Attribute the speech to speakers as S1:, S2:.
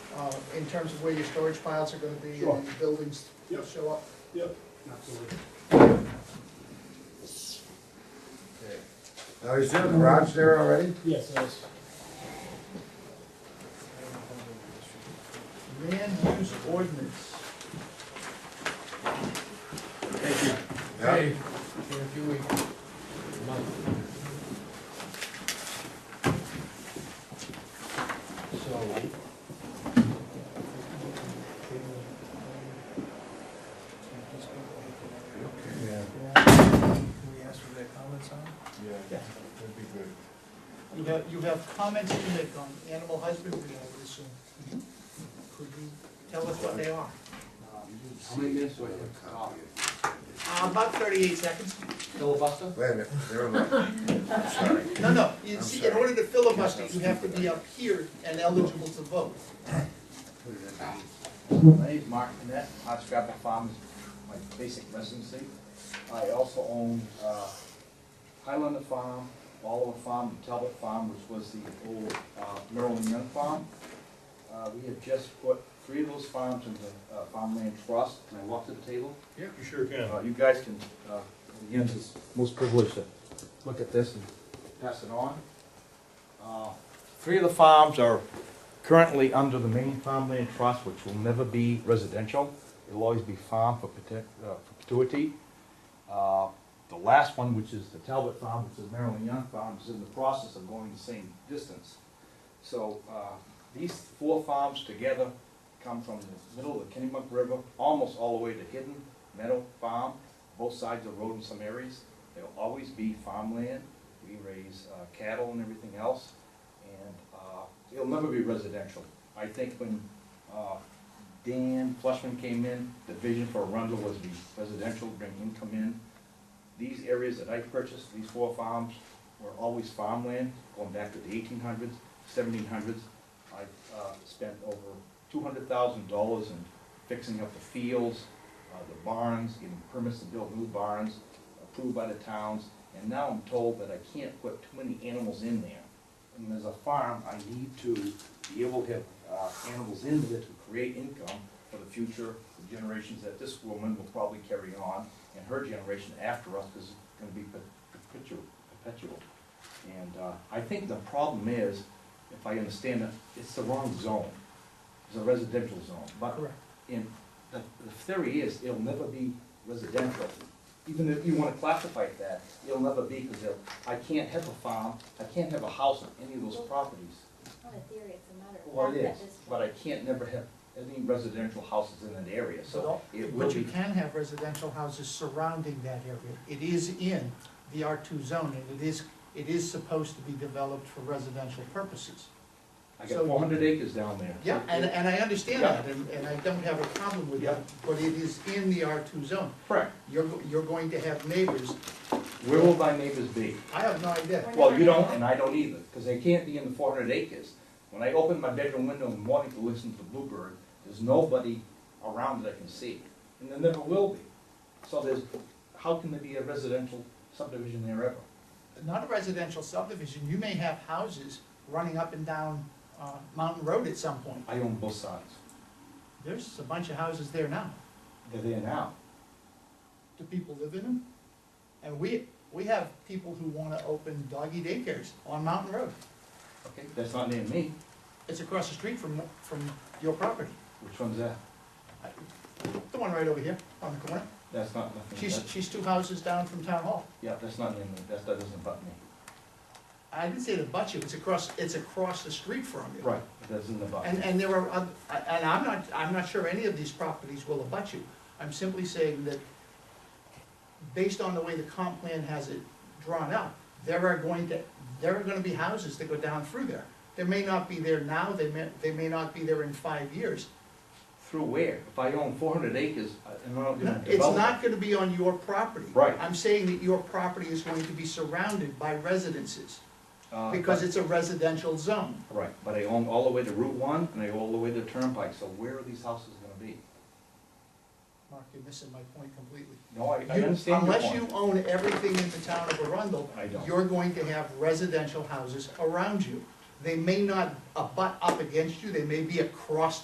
S1: uh, in terms of where your storage piles are gonna be, and
S2: Sure.
S1: your buildings
S2: Yep.
S1: show up.
S2: Yep, absolutely.
S3: Now, is there a garage there already?
S2: Yes, yes.
S1: Land use ordinance.
S3: Yeah.
S1: in a few weeks.
S3: Yeah.
S1: we ask for their comments on?
S3: Yeah, that'd be good.
S1: You have, you have comments in there on animal husbandry, I would assume. Could you tell us what they are?
S4: How many minutes do I have?
S1: Uh, About thirty-eight seconds.
S4: Filibuster?
S3: Wait a minute, never mind. I'm sorry.
S1: No, no, you
S3: I'm
S1: see, in
S3: sorry.
S1: order to filibuster, you have to be up here and eligible to vote.
S4: My name's Mark Net, Hot Scrapper Farms, my basic residency. I also own uh, Highlander Farm, Oliver Farm, and Talbot Farm, which was the old uh, Merrill and Young Farm. Uh, We have just put three of those farms into uh, farmland trust. Can I walk to the table?
S2: Yeah, you sure can.
S4: Uh, You guys can, uh, again, it's most privileged to look at this and pass it on. Uh, Three of the farms are currently under the main farmland trust, which will never be residential. It'll always be farm for protect- uh, for perpetuity. Uh, The last one, which is the Talbot Farm, which is Maryland Young Farm, is in the process of going the same distance. So uh, these four farms together come from the middle of the Kennebunk River, almost all the way to Hidden Meadow Farm, both sides of the road in some areas. There'll always be farmland. We raise uh, cattle and everything else, and uh, it'll never be residential. I think when uh, Dan Flushman came in, the vision for Arundel was to be residential, bring income in. These areas that I purchased, these four farms, were always farmland, going back to the eighteen hundreds, seventeen hundreds. I uh, spent over two hundred thousand dollars in fixing up the fields, uh, the barns, getting permits to build new barns, approved by the towns, and now I'm told that I can't put too many animals in there. And as a farm, I need to be able to have uh, animals in there to create income for the future the generations that this woman will probably carry on, and her generation after us is gonna be per- perpetual, perpetual. And uh, I think the problem is, if I understand it, it's the wrong zone. It's a residential zone, but
S1: Correct.
S4: and the, the theory is, it'll never be residential. Even if you wanna classify it that, it'll never be, because I can't have a farm, I can't have a house on any of those properties.
S5: Not a theory, it's a matter of
S4: Well,
S5: fact
S4: it
S5: at
S4: is,
S5: this
S4: but I
S5: point.
S4: can't never have any residential houses in that area, so it will
S1: But you
S4: be.
S1: can have residential houses surrounding that area. It is in the R two zone, and it is, it is supposed to be developed for residential purposes.
S4: I
S1: so-
S4: got four hundred acres down there.
S1: Yeah, and, and I understand
S4: Yeah.
S1: that, and, and I don't have a problem with that,
S4: Yeah.
S1: but it is in the R two zone.
S4: Correct.
S1: You're, go- you're going to have neighbors,
S4: Where will thy neighbors be?
S1: I have no idea.
S5: We're
S4: Well,
S5: not
S4: you
S5: gonna
S4: don't, and I don't either, because they can't be in the four hundred acres. When I open my bedroom window in the morning to listen to Bluebird, there's nobody around that I can see, and there never will be. So there's, how can there be a residential subdivision there ever?
S1: Not a residential subdivision, you may have houses running up and down, uh, Mountain Road at some point.
S4: I own both sides.
S1: There's a bunch of houses there now.
S4: They're there now.
S1: Do people live in them? And we, we have people who wanna open doggy daycares on Mountain Road.
S4: Okay, that's not near me.
S1: It's across the street from, from your property,
S4: Which one's that?
S1: the one right over here on the corner.
S4: That's not nothing.
S1: She's,
S4: that-
S1: she's two houses down from Town Hall.
S4: Yeah, that's not near me. That's, that doesn't butt me.
S1: I didn't say the butt you, it's across, it's across the street from you.
S4: Right. That doesn't abut.
S1: And, and there are, oth- and I'm not, I'm not sure any of these properties will abut you. I'm simply saying that based on the way the comp plan has it drawn up, there are going to, there are gonna be houses that go down through there. They may not be there now, they may, they may not be there in five years.
S4: Through where? If I own four hundred acres, I- and I don't do
S1: No, It's not gonna be on your property.
S4: Right.
S1: I'm saying that your property is going to be surrounded by residences,
S4: Uh,
S1: because it's a residential zone.
S4: Right, but I own all the way to Route One and I own all the way to Turnpike, so where are these houses gonna be?
S1: Mark, you're missing my point completely.
S4: No, I, I
S1: You-
S4: understand your
S1: Unless you
S4: point.
S1: own everything in the town of Arundel.
S4: I don't.
S1: You're going to have residential houses around you. They may not abut up against you, they may be across